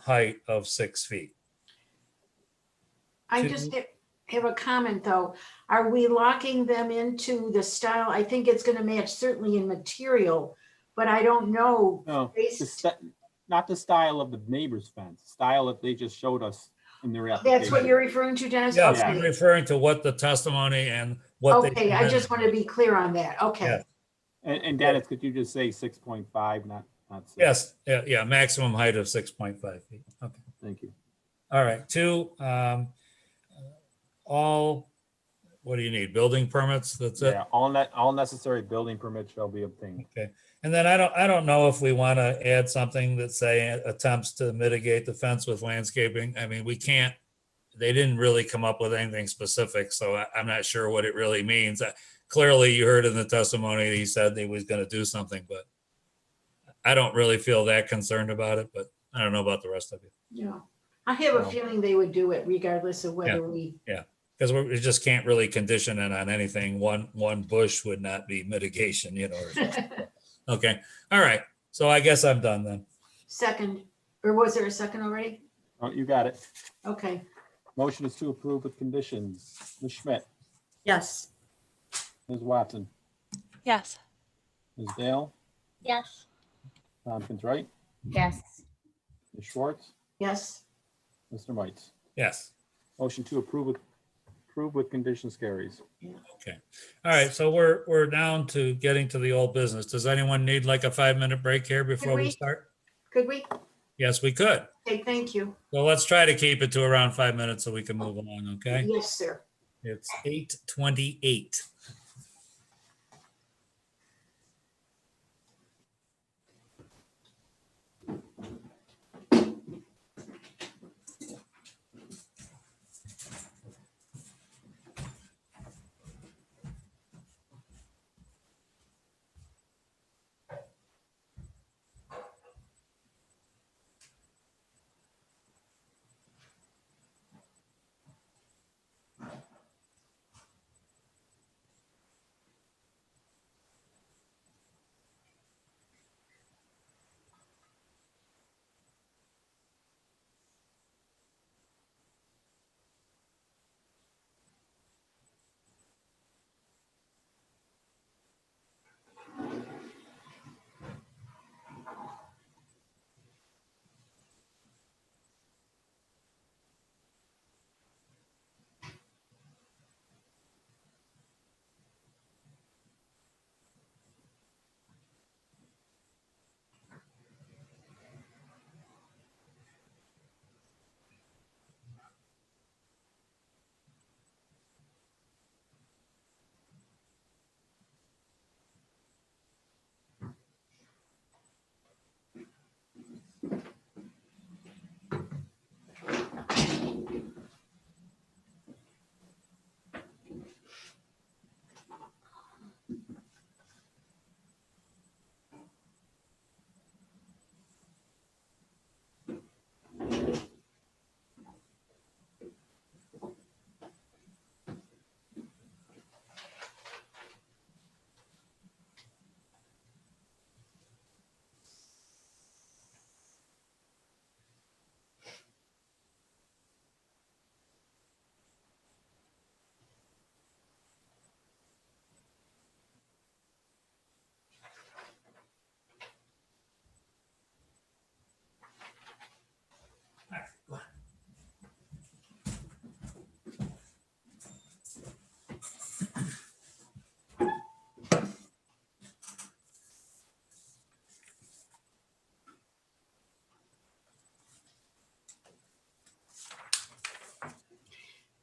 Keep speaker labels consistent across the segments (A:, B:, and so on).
A: height of six feet.
B: I
A: Should
B: just ha- have a comment, though. Are we locking them into the style? I think it's gonna match certainly in material, but I don't know.
C: No, the
B: based-
C: st- not the style of the neighbor's fence, style that they just showed us in their application.
B: That's what you're referring to, Dennis?
A: Yeah,
B: Okay.
A: I'm referring to what the testimony and what. they-
B: Okay, I just want to be clear on that. Okay,
A: Yeah.
C: And, and Dennis, could you just say six point five, not, not? six?
A: Yes, yeah, yeah, maximum height of six point five feet. Okay,
C: Thank you.
A: all right, two, um, all, what do you need? Building permits? That's it?
C: Yeah, all net, all necessary building permits shall be obtained.
A: Okay, and then I don't, I don't know if we want to add something that say attempts to mitigate the fence with landscaping. I mean, we can't. They didn't really come up with anything specific, so I, I'm not sure what it really means. Uh, Clearly, you heard in the testimony, that he said that he was going to do something, but I don't really feel that concerned about it, but I don't know about the rest of you.
B: yeah. I have a
C: No.
B: feeling they would do it regardless of whether we,
A: Because we just can't really condition it on anything. One, one bush would not be mitigation, you know. or- Okay, all right. So I guess I'm done then.
B: second, or was there a second already?
C: Oh, you got it.
B: Okay,
C: Motion is to approve with conditions. Ms. Schmidt,
D: Yes.
C: Ms. Watson,
E: Yes.
C: Ms. Dale,
F: Yes.
C: Tompkins Wright,
F: Yes.
C: Ms. Schwartz,
B: yes,
C: Mr. Mites.
A: Yes.
C: Motion to approve with, approve with conditions carries.
A: All right, so we're, we're down to getting to the old business. Does anyone need like a five-minute break here before we
B: we?
A: start?
B: could we?
A: Yes, we could.
B: Okay, thank you.
A: So let's try to keep it to around five minutes so we can move along, okay?
B: Yes, sir.
A: It's eight twenty-eight.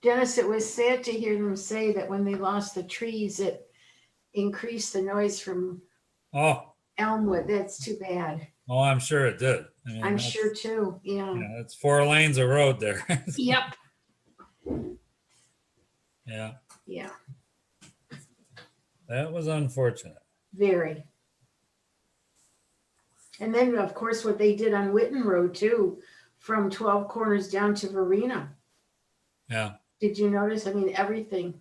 B: Dennis, it was sad to hear them say that when they lost the trees, it increased the noise from
A: Oh,
B: Elmwood. That's too bad.
A: oh, I'm sure it did. I mean,
B: I'm
A: that's-
B: sure too, yeah.
A: Yeah, it's four lanes of road there.
B: Yep.
A: Yeah,
B: Yeah,
A: that was unfortunate.
B: very. And then, of course, what they did on Witten Road too, from Twelve Corners down to Verena.
A: Yeah,
B: Did you notice? I mean, everything.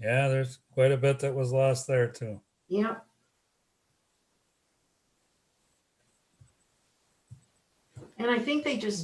A: yeah, there's quite a bit that was lost there too.
B: Yep. And I think they just